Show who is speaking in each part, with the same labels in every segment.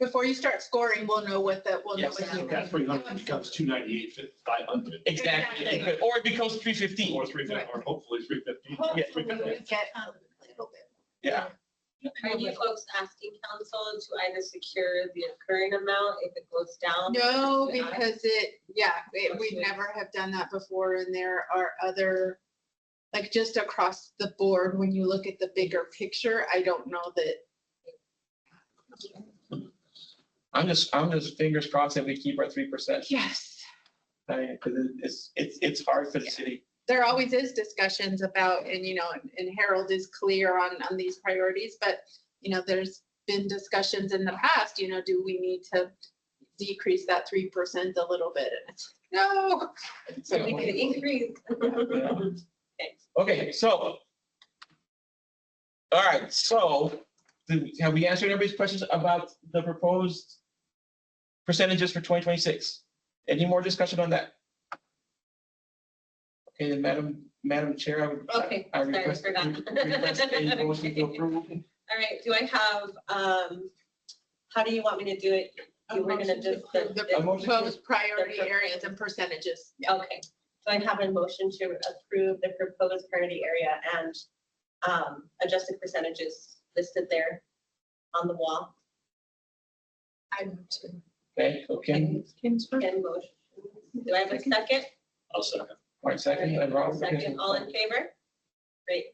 Speaker 1: Before you start scoring, we'll know what that, we'll know
Speaker 2: Yes,
Speaker 1: what
Speaker 2: so
Speaker 1: happened.
Speaker 2: that three hundred becomes two ninety-eight, five hundred,
Speaker 3: Exactly, it could- or it becomes three fifteen.
Speaker 2: or three fifty, or hopefully three fifty.
Speaker 1: Hopefully, we
Speaker 2: Yeah.
Speaker 1: get um, a little bit.
Speaker 3: Yeah.
Speaker 4: Are you folks asking council to either secure the current amount if it goes down?
Speaker 1: No,
Speaker 4: Yeah.
Speaker 1: because it, yeah, it- we
Speaker 4: Okay.
Speaker 1: never have done that before, and there are other, like, just across the board, when you look at the bigger picture, I don't know that,
Speaker 3: I'm just, I'm just fingers crossed that we keep our three percent,
Speaker 1: yes.
Speaker 3: because it's, it's, it's hard for the city.
Speaker 1: there always is discussions about, and you know, and- and Harold is clear on, on these priorities, but, you know, there's been discussions in the past, you know, do we need to decrease that three percent a little bit? And it's, No,
Speaker 4: So we can increase.
Speaker 3: Okay, so. All right, so, do- have we answered everybody's questions about the proposed percentages for twenty twenty-six? Any more discussion on that? Okay, then Madam, Madam Chair, I would. I-
Speaker 4: Okay,
Speaker 3: I
Speaker 4: sorry, I
Speaker 3: request-
Speaker 4: forgot.
Speaker 3: request a motion to approve.
Speaker 4: All right, do I have, um, how do you want me to do it? You were gonna just.
Speaker 1: the
Speaker 3: A motion to-
Speaker 1: proposed priority areas and percentages. Yeah.
Speaker 4: Okay, so I have a motion to approve the proposed priority area and um, adjusted percentages listed there on the wall.
Speaker 1: I'm too.
Speaker 3: Okay, okay,
Speaker 4: Can motion, do I have a second?
Speaker 2: I'll second.
Speaker 3: all right, second, and Robert.
Speaker 4: Second, all in favor? Great,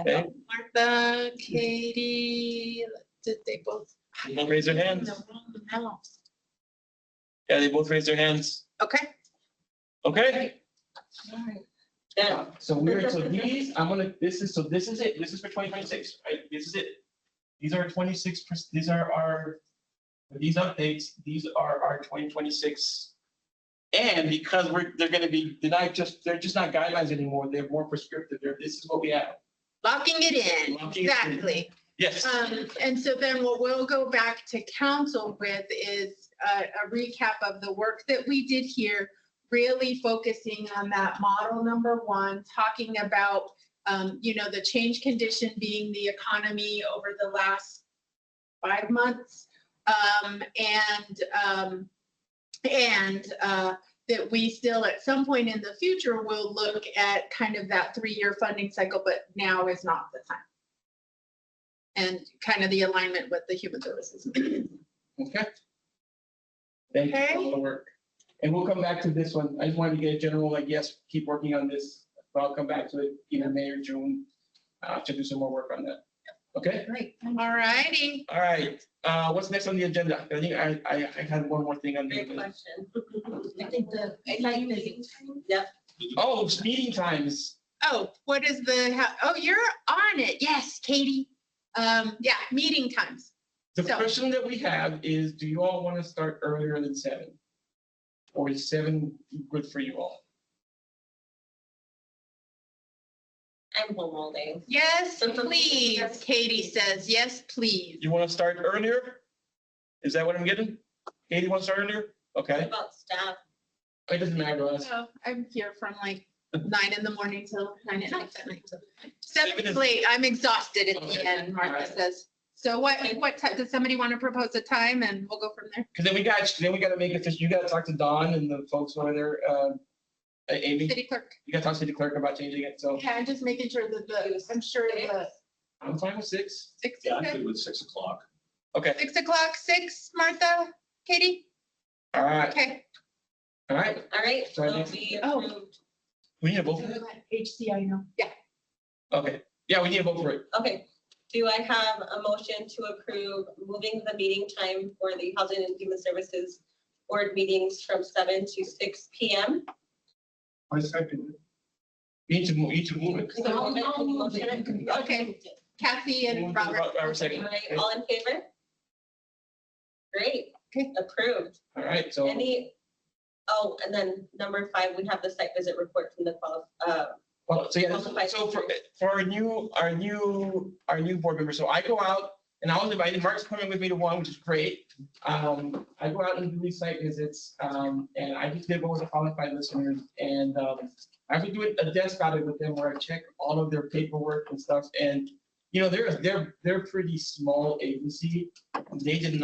Speaker 3: Okay,
Speaker 1: Martha, Katie, did they both?
Speaker 3: don't raise their hands.
Speaker 1: No, wrong house.
Speaker 3: Yeah, they both raised their hands.
Speaker 1: Okay.
Speaker 3: Okay,
Speaker 4: done.
Speaker 3: so we're, so these, I'm gonna, this is, so this is it, this is for twenty twenty-six, right, this is it. These are twenty-six, these are our, these updates, these are our twenty twenty-six. And because we're, they're gonna be, they're not just, they're just not guidelines anymore, they're more prescriptive, they're, this is what we have.
Speaker 1: Locking it in,
Speaker 3: Locking it in.
Speaker 1: exactly.
Speaker 3: Yes,
Speaker 1: Um, and so then what we'll go back to council with is a, a recap of the work that we did here, really focusing on that model number one, talking about, um, you know, the change condition being the economy over the last five months. Um, and, um, and, uh, that we still at some point in the future will look at kind of that three-year funding cycle, but now is not the time and kind of the alignment with the human services.
Speaker 3: okay. Thank you for all
Speaker 1: Okay.
Speaker 3: the work. And we'll come back to this one, I just wanted to get a general, like, yes, keep working on this, but I'll come back to it, either May or June, uh, to do some more work on that. Okay?
Speaker 1: Great. All righty.
Speaker 3: All right, uh, what's next on the agenda? I think I, I, I had one more thing on
Speaker 4: Great
Speaker 3: the,
Speaker 4: question.
Speaker 5: I think the.
Speaker 4: Yep,
Speaker 3: oh, it's meeting times.
Speaker 1: Oh, what is the, how- oh, you're on it. Yes, Katie. Um, yeah, meeting times.
Speaker 3: The
Speaker 1: So-
Speaker 3: question that we have is, do you all want to start earlier than seven? Or is seven good for you all?
Speaker 4: I'm home all day.
Speaker 1: Yes, please. Katie says, yes, please.
Speaker 3: You want to start earlier? Is that what I'm getting? Katie wants to start earlier?
Speaker 4: What
Speaker 3: Okay,
Speaker 4: about staff?
Speaker 3: it doesn't matter to us.
Speaker 1: So I'm here from like nine in the morning till nine at night.
Speaker 3: Seven
Speaker 1: Seven
Speaker 3: is-
Speaker 1: is late. I'm exhausted at the
Speaker 3: Okay.
Speaker 1: end, Martha
Speaker 3: Alright.
Speaker 1: says. So what, what, ti- does somebody want to propose a time and we'll go from there?
Speaker 3: Because then we got, then we got to make it, you got to talk to Don and the folks over there, uh, Amy,
Speaker 1: City clerk.
Speaker 3: you got to talk to the clerk about changing it, so
Speaker 1: Yeah, I'm just making sure that the, I'm sure the
Speaker 3: I'm fine with six.
Speaker 1: six.
Speaker 2: Yeah,
Speaker 1: okay.
Speaker 2: I'm good with six o'clock.
Speaker 3: Okay,
Speaker 1: Six o'clock, six, Martha, Katie?
Speaker 3: all right,
Speaker 1: Okay.
Speaker 3: all right.
Speaker 4: All right,
Speaker 3: Sorry,
Speaker 4: so
Speaker 3: next.
Speaker 4: we
Speaker 1: Oh.
Speaker 4: approved,
Speaker 3: We need to vote for it.
Speaker 1: HC, I know. Yeah.
Speaker 3: Okay, yeah, we need to vote for it.
Speaker 4: okay. Do I have a motion to approve moving the meeting time for the Housing and Human Services Board meetings from seven to six P M?
Speaker 2: I second.
Speaker 3: You need to move, you need to move it.
Speaker 4: So I'll- I'll move it.
Speaker 1: Okay, Kathy and Robert.
Speaker 3: Robert second.
Speaker 4: Alright, all in favor? Great,
Speaker 1: Okay.
Speaker 4: approved.
Speaker 3: All right, so,
Speaker 4: Any, oh, and then number five, we have the site visit report from the qual, uh,
Speaker 3: well, so yeah, this- so for, for our new, our new, our new board member, so I go out and I was invited, Mark's coming with me to one, which is great. Um, I go out and do these site visits, um, and I just did what was qualified listeners and, um, I have to do a desk audit with them where I check all of their paperwork and stuff and, you know, they're, they're, they're pretty small agency. They did